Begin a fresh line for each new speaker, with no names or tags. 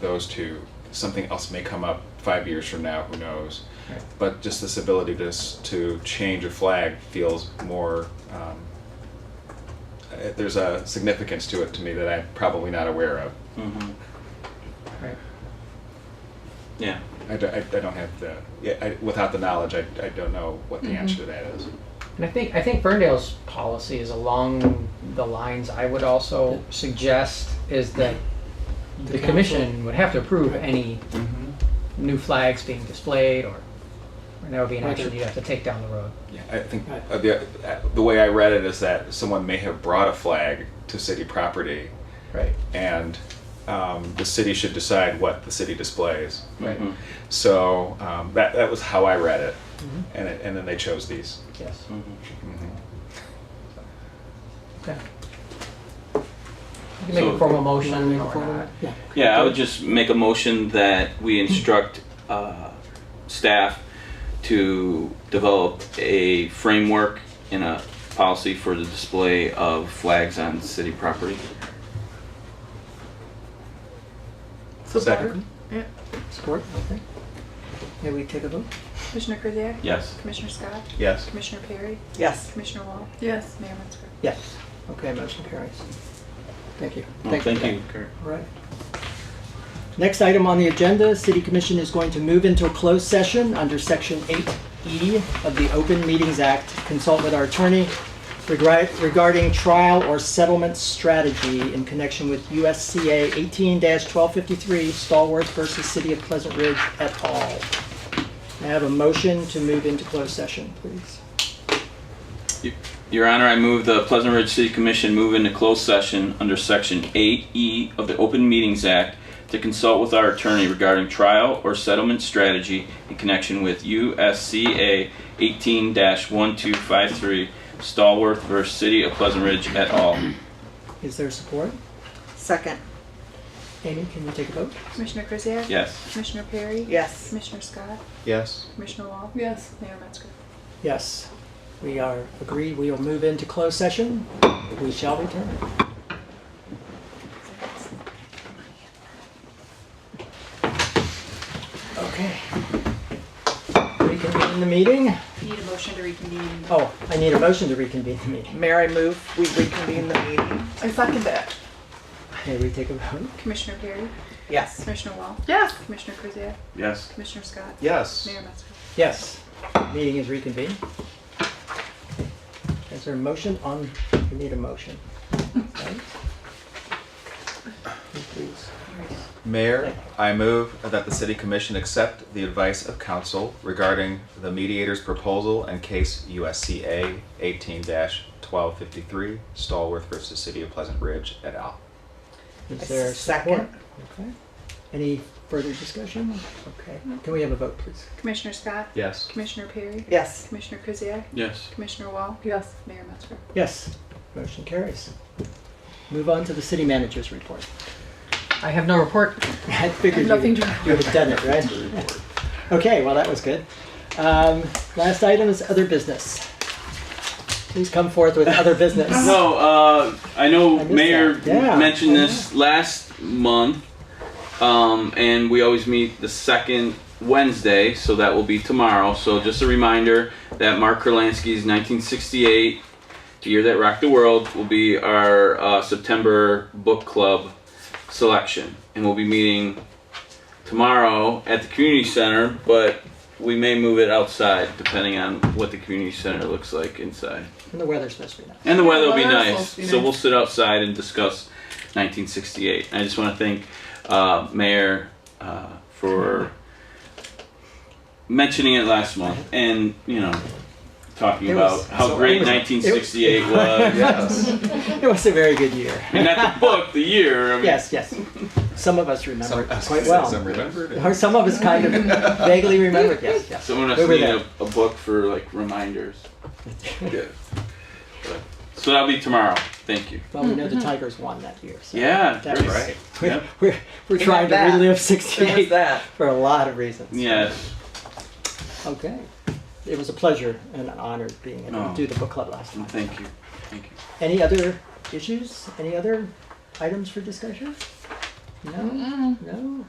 those two. Something else may come up five years from now, who knows?
Right.
But just this ability to, s- to change a flag feels more, um, uh, there's a significance to it to me that I'm probably not aware of.
Mhm. Right. Yeah.
I, do, not have the, yeah, I, without the knowledge, I, I don't know what the
Mhm.
answer to that is.
And I think, I think Ferndale's policy is along the lines I would also suggest is that the
The council-
commission would have to approve
Right.
any
Mm-hmm.
new flags being displayed or, or that would be an
Right.
action you'd have to take down the road.
Yeah, I think
Right.
uh, the, uh, the way I read it is that someone may have brought a flag to city property
Right.
and um, the city should decide what the city displays.
Right.
Mhm.
So um, that, that was how I read it.
Mhm.
And, it, and then they chose these.
Yes.
Mhm.
Mhm.
Okay. You can make
So-
a formal motion
Wanna
or
make a formal-
not.
Yeah.
Yeah, I would just make a motion that we instruct uh, staff to develop a framework and a policy for the display of flags on city property.
Second.
Yeah.
Support, okay. May we take a vote?
Commissioner Crozier?
Yes.
Commissioner Scott?
Yes.
Commissioner Perry?
Yes.
Commissioner Wall?
Yes.
Mayor Metzger?
Yes. Okay, motion carries. Thank you.
Well,
for
Oh, thank
that.
you, Kurt.
All right. Next item on the agenda, City Commission is going to move into a closed session under Section 8E of the Open Meetings Act. Consult with our attorney regri- regarding trial or settlement strategy in connection with USCA 18-1253 Stallworth versus City of Pleasant Ridge et al. May I have a motion to move into closed session, please?
Your Honor, I move the Pleasant Ridge City Commission move into closed session under Section 8E of the Open Meetings Act to consult with our attorney regarding trial or settlement strategy in connection with USCA 18-1253 Stallworth versus City of Pleasant Ridge et al.
Is there support?
Second,
Amy, can you take a vote?
Commissioner Crozier?
Yes.
Commissioner Perry?
yes.
Commissioner Scott?
Yes.
Commissioner Wall?
Yes.
Mayor Metzger?
Yes, we are agreed. We will move into closed session. We shall return. Okay. Reconvene the meeting.
Need a motion to reconvene.
Oh, I need a motion to reconvene the meeting.
Mayor, I move we reconvene the meeting.
I second that.
May we take a vote?
Commissioner Perry?
Yes.
Commissioner Wall?
Yes.
Commissioner Crozier?
Yes.
Commissioner Scott?
Yes.
Mayor Metzger?
Yes, meeting is reconvened. Is there a motion on, we need a motion. right? Please.
Mayor, I move that the city commission accept the advice of council regarding the mediator's proposal and case USCA 18-1253 Stallworth versus City of Pleasant Ridge et al.
Is there support?
Second.
Okay. Any further discussion? Okay. Can we have a vote, please?
Commissioner Scott?
Yes.
Commissioner Perry?
Yes.
Commissioner Crozier?
Yes.
Commissioner Wall?
Yes.
Mayor Metzger?
Yes. Motion carries. Move on to the city manager's report.
I have no report.
I figured you
Nothing
would
to.
have done it, right? Okay, well, that was good. Um, Last item is other business. Please come forth with other business.
No, uh, I know
I missed
Mayor
that. Yeah. Mm-hmm.
mentioned this last month, um, and we always meet the second Wednesday, so that will be tomorrow. So just a reminder that Mark Kurlansky's 1968, The Year That Rocked the World, will be our uh, September book club selection, and we'll be meeting tomorrow at the community center, but. We may move it outside depending on what the community center looks like inside.
And the weather's supposed to be nice.
And the weather will be
Well, that's
nice.
supposed to be
So
nice.
we'll sit outside and discuss 1968. I just want to thank uh, Mayor uh, for mentioning it last month and, you know, talking
It
about
was-
how
so
great
it was-
1968 was.
Yes.
It was a very good year.
I mean, not the book, the year. I mean,
Yes, yes. Some of us remember it quite well.
Some remembered it.
Or some of us kind of vaguely remember it, yes, yes.
Someone
We
has
were
to need
there.
a, a book for, like, reminders. yeah. But- So that'll be tomorrow. Thank you.
Well, we know
Mm-hmm.
the Tigers won that year. So
Yeah.
That
great.
was-
Right.
We're,
Yep.
we're, we're
It
trying
was
to
that.
relive
It was
68
that.
for a lot of reasons.
Yes.
Okay. It was a pleasure and an honor being able
Oh.
to do the book club last time.
And thank you. Thank you.
Any other issues? Any other items for discussion? No? No?